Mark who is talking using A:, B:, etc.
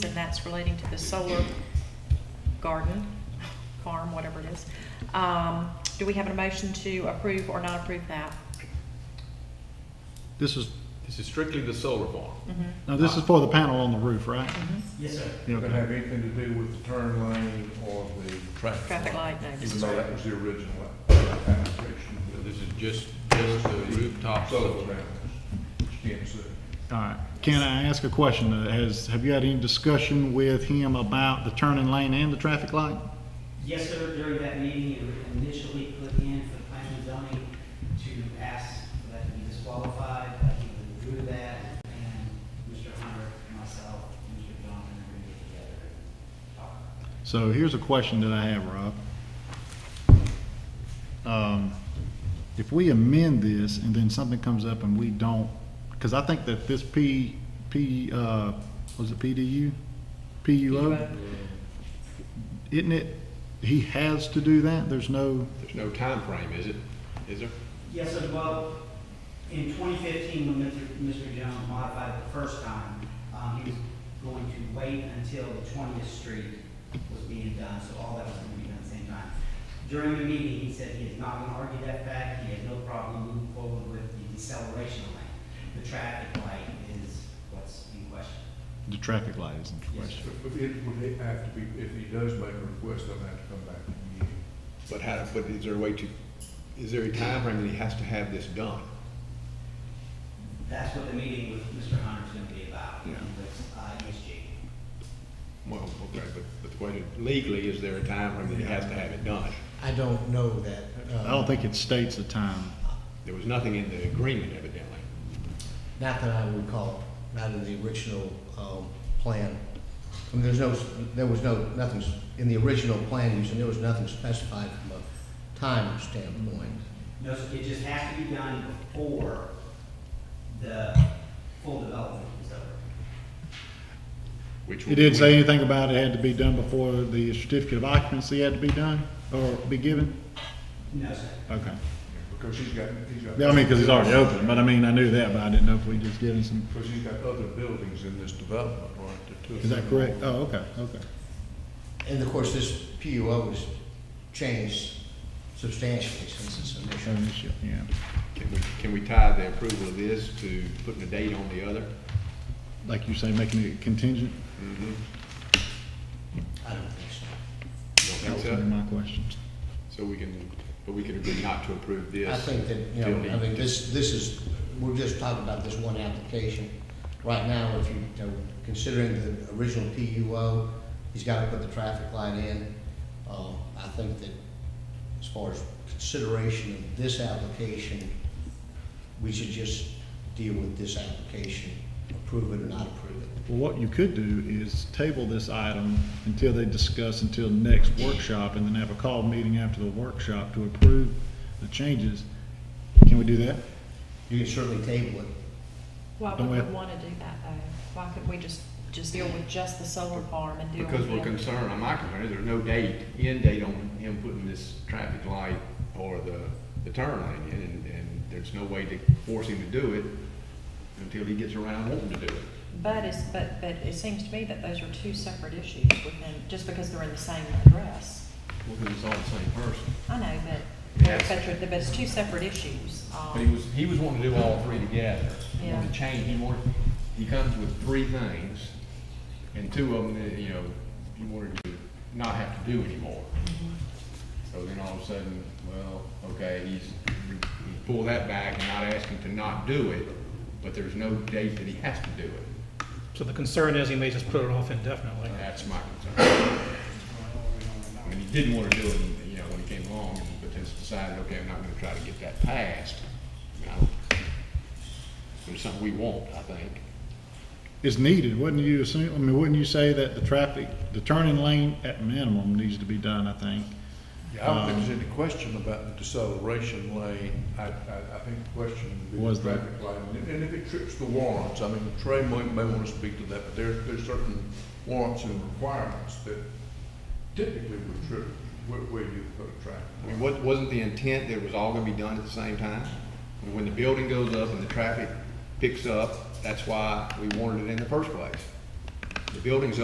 A: and that's relating to the solar garden, farm, whatever it is. Um, Do we have a motion to approve or not approve that?
B: This is,
C: This is strictly the solar farm.
B: now this is for the panel on the roof, right?
D: Yes, sir.
B: Yeah,
E: Doesn't
B: okay.
E: have anything to do with the turn lane or the
A: Traffic
E: traffic light.
A: light, no. this
E: Even
A: is-
E: though that was the original application.
C: So This is just, just the rooftop
E: Solar
C: solar.
E: panels, extensive.
B: All right. Can I ask a question? Uh, Has, have you had any discussion with him about the turning lane and the traffic light?
D: Yes, sir, during that meeting, you initially put in for the planning and zoning to ask for that to be disqualified, but he withdrew that, and Mr. Hunter, myself, Mr. Johnson agreed together and talked.
B: So here's a question that I have, Rob. Um, If we amend this and then something comes up and we don't, because I think that this P, P, uh, was it PDU? PUO? Isn't it, he has to do that? There's no,
C: There's no time frame, is it? Is there?
D: Yes, sir, well, in 2015, when Mr. Mr. Jones modified it the first time, um, he was going to wait until the 20th Street was being done, so all that was going to be done at the same time. During the meeting, he said he is not going to argue that fact, he had no problem moving forward with the deceleration lane. The traffic light is what's in question.
B: the traffic light is in
D: Yes,
B: question.
D: sir.
E: But it would have to be, if he does make a request, they'll have to come back to the meeting.
C: But how, but is there a way to, is there a time frame that he has to have this done?
D: That's what the meeting with Mr. Hunter's going to be about,
C: Yeah.
D: with uh, ESG.
C: Well, okay, but, but the question, legally, is there a time frame that he has to have it done?
F: I don't know that. uh,
B: I don't think it states a time.
C: There was nothing in the agreement evidently.
F: Not that I recall, not in the original um, plan. I mean, there's no, there was no, nothing, s- in the original plan use, and there was nothing specified from a time standpoint.
D: No, so it just has to be done before the full development is over.
C: which
B: It didn't say anything about it had to be done before the certificate of occupancy had to be done or be given?
D: No, sir.
B: Okay.
E: Because he's got, he's got.
B: Yeah, I mean, because it's already open, but I mean, I knew that, but I didn't know if we just given some,
E: Because he's got other buildings in this development, right? the two of
B: is that
E: them.
B: correct? Oh, okay, okay.
F: And of course, this PUO has changed substantially since its
B: Oh,
F: initial.
B: this year, Yeah.
C: Can we, can we tie the approval of this to putting a date on the other?
B: Like you say, making it contingent?
F: I don't think so.
C: You
B: That
C: don't
B: was
C: think
B: one of
C: so?
B: my questions.
C: So we can, but we can agree not to approve this.
F: I think that, you
C: till
F: know,
C: he-
F: I mean, this, this is, we're just talking about this one application. Right now, if you, you know, considering the original PUO, he's gotta put the traffic light in. Uh, I think that as far as consideration of this application, we should just deal with this application, approve it or not approve it.
B: Well, what you could do is table this item until they discuss, until next workshop, and then have a call meeting after the workshop to approve the changes. Can we do that?
F: You can certainly table it.
A: Why would
B: Don't we
A: we
B: have-
A: want to do that though? Why couldn't we just, just deal with just the solar farm and deal with?
C: Because we're
A: the-
C: concerned, I'm not concerned, there's no date, end date on him putting this traffic light or the, the turn lane in, and, and there's no way to force him to do it until he gets around wanting to do it.
A: But it's, but, but it seems to me that those are two separate issues within, just because they're in the same address.
C: Well, because it's all the same person.
A: I know, but,
C: Yes.
A: but you're- but it's two separate issues. um,
C: But he was, he was wanting to do all three together. He wanted
A: Yeah.
C: to change, he wanted, he comes with three things, and two of them, that, you know, he wanted to not have to do anymore. So then all of a sudden, well, okay, he's, he pull that back and not ask him to not do it, but there's no date that he has to do it.
G: So the concern is he may just put it off indefinitely.
C: That's my concern. I mean, he didn't want to do it, you know, when he came along, but just decided, okay, I'm not gonna try to get that passed. You know, It's something we want, I think.
B: It's needed, wouldn't you assume, I mean, wouldn't you say that the traffic, the turning lane at minimum needs to be done, I think?
E: Yeah, I don't think there's any question about the deceleration lane. I, I, I think the question would be
B: Was
E: the
B: the-
E: traffic light. And if- And if it trips the warrants, I mean, Trey may, may want to speak to that, but there, there's certain warrants and requirements that typically would trip where, where you put a traffic
C: I mean,
E: light.
C: what, wasn't the intent that it was all gonna be done at the same time? When the building goes up and the traffic picks up, that's why we wanted it in the first place. The building's